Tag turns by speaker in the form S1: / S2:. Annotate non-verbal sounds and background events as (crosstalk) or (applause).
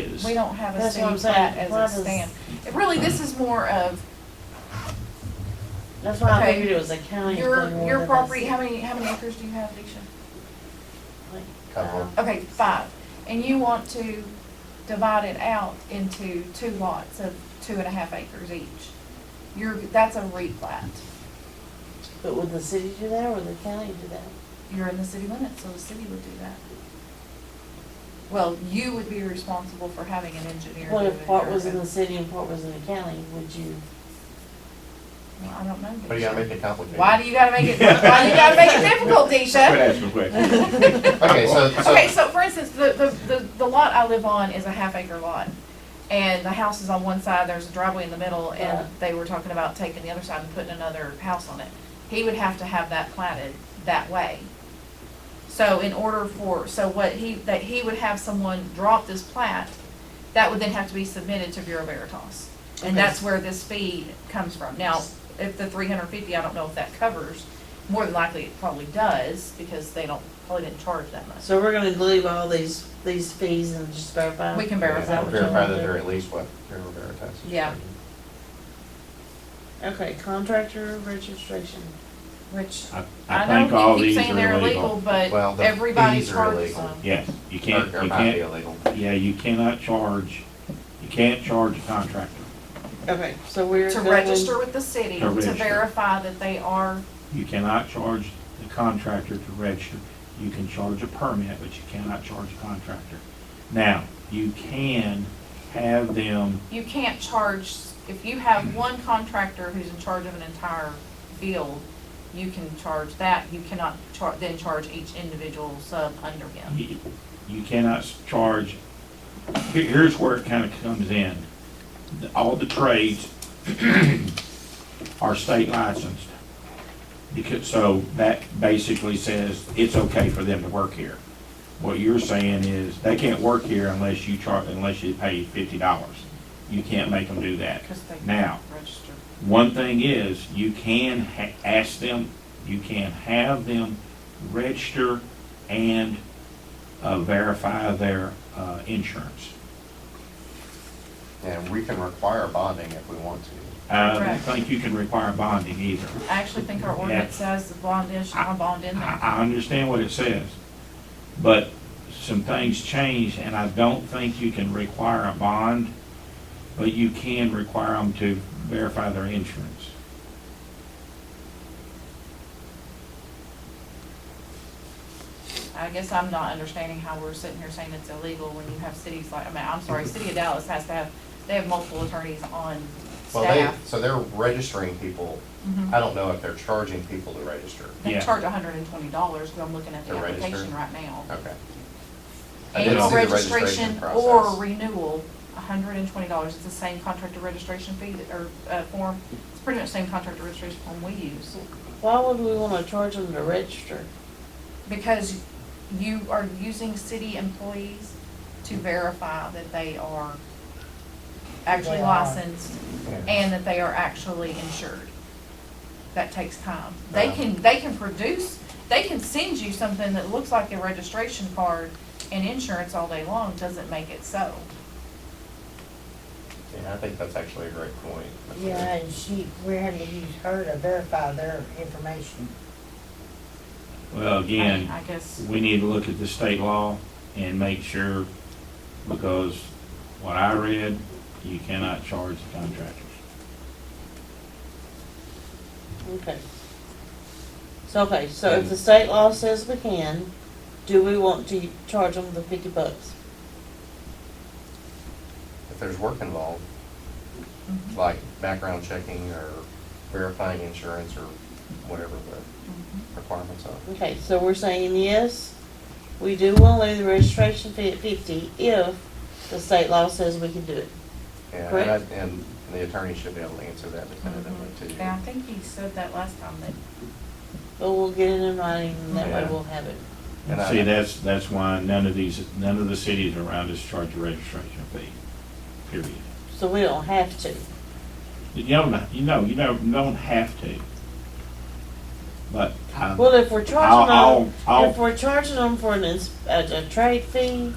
S1: is.
S2: We don't have a
S3: That's what
S2: city
S3: I'm saying.
S2: plat
S3: Why
S2: as
S3: does-
S2: a stand. It Really, this is more of
S3: That's why I
S2: Okay.
S3: figured it was a county.
S2: your,
S3: thing more
S2: your
S3: than a
S2: property,
S3: city.
S2: how many, how many acres do you have, Deisha?
S3: Like,
S4: Couple.
S3: uh,
S2: Okay, five. And you want to divide it out into two lots of two and a half acres each. You're, that's a replat.
S3: But would the city do that or would the county do that?
S2: You're in the city limits, so the city would do that. Well, you would be responsible for having an engineer do
S3: What
S2: it.
S3: if part was
S2: or-
S3: in the city and part was in the county, would you?
S2: Well, I don't know.
S4: But you
S2: Deisha.
S4: gotta Oh, make it complicated.
S2: Why do you gotta make it, why do you gotta make it difficult, Deisha?
S1: Quit asking questions.
S4: Okay, so,
S2: Okay,
S4: so,
S2: so for instance, the, the, the, the lot I live on is a half acre lot. And the house is on one side, there's a driveway in the middle, and
S3: Right.
S2: they were talking about taking the other side and putting another house on it. He would have to have that platted that way. So in order for, so what he, that he would have someone draw up this plat, that would then have to be submitted to Bureau Veritas. And that's where this fee comes from. Now, if the three hundred fifty, I don't know if that covers, more than likely it probably does, because they don't, probably didn't charge that much.
S3: So we're gonna leave all these, these fees and just verify?
S2: We can
S4: yeah,
S2: verify.
S3: what you
S4: verify
S3: wanna
S4: that
S3: do?
S4: they're at least what, Bureau Veritas. is
S2: Yeah.
S4: charging.
S3: Okay, contractor registration.
S2: Which,
S1: I-
S2: I
S1: I think all
S2: know you keep
S1: these
S2: saying they're
S1: are
S2: illegal,
S1: illegal.
S2: but
S4: Well, the
S2: everybody
S4: fees are
S2: charges
S4: illegal.
S2: them.
S1: Yes, you
S4: Or,
S1: can't,
S4: or
S1: you
S4: might be
S1: can't,
S4: illegal.
S1: yeah, you cannot charge, you can't charge a contractor.
S3: Okay, so we're.
S2: To
S3: going-
S2: register with the city,
S1: To
S2: to
S1: register.
S2: verify that they are,
S1: You cannot charge the contractor to register. You can charge a permit, but you cannot charge a contractor. Now, you can have them,
S2: you can't charge, if you have one contractor who's in charge of an entire field, you can charge that, you cannot char, then charge each individual sub under him.
S1: you you cannot s- charge, here- here's where it kind of comes in. The- All the trades (clears throat) are state licensed. Because, so that basically says it's okay for them to work here. What you're saying is they can't work here unless you char, unless you pay fifty dollars. You can't make them do that.
S2: Because they
S1: Now,
S2: can't register.
S1: One thing is, you can ha- ask them, you can have them register and uh, verify their uh, insurance.
S4: And we can require bonding if we want to.
S1: I don't
S2: Correct.
S1: think you can require bonding either.
S2: I actually think our ordinance says the bond is,
S1: I-
S2: on bond in
S1: I,
S2: there.
S1: I understand what it says, but some things changed, and I don't think you can require a bond, but you can require them to verify their insurance.
S2: I guess I'm not understanding how we're sitting here saying it's illegal when you have cities like, I mean, I'm sorry, City of Dallas has to have, they have multiple attorneys on
S4: Well, they,
S2: staff.
S4: so they're registering people,
S2: Mhm.
S4: I don't know if they're charging people to register.
S2: They
S1: Yeah.
S2: charge hundred and twenty dollars, because I'm looking at the
S4: To register?
S2: application right now.
S4: Okay. I didn't
S2: Annual
S4: see the
S2: registration or
S4: process.
S2: renewal, hundred and twenty dollars, it's the same contractor registration fee, that- or, uh, form, it's pretty much the same contractor registration form we use.
S3: Why would we wanna charge them to register?
S2: Because you are using city employees to verify that they are actually
S3: They are.
S2: licensed
S4: Yeah.
S2: and that they are actually insured. That takes time. They
S4: Wow.
S2: can, they can produce, they can send you something that looks like a registration card and insurance all day long, doesn't make it so.
S4: Yeah, I think that's actually a great point. That's a good-
S5: Yeah, and she, we had to use her to verify their information.
S1: Well,
S2: I mean,
S1: again.
S2: I guess,
S1: we need to look at the state law and make sure, because what I read, you cannot charge the contractors.
S3: Okay. So, okay, so if the state law says we can, do we want to charge them the fifty bucks?
S4: If there's work involved,
S2: mm-hmm,
S4: like background checking or verifying insurance or whatever the requirements are.
S3: Okay, so we're saying yes, we do want to leave the registration fee at fifty if the state law says we can do it.
S4: Yeah, and,
S3: Correct.
S4: I- and the attorney should be able to answer that definitively too.
S2: yeah, I think he said that last time that
S3: But we'll get it in writing and that way
S4: Yeah.
S3: we'll have it.
S4: And I-
S1: See, that's, that's why none of these, none of the cities around us charge a registration fee, period.
S3: So we don't have to.
S1: You don't, you know, you don't, you don't have to. But I,
S3: Well, if we're
S1: Um, I'll,
S3: charging
S1: I'll,
S3: them, if
S1: I'll,
S3: we're charging them for an ins, a, a trade fee,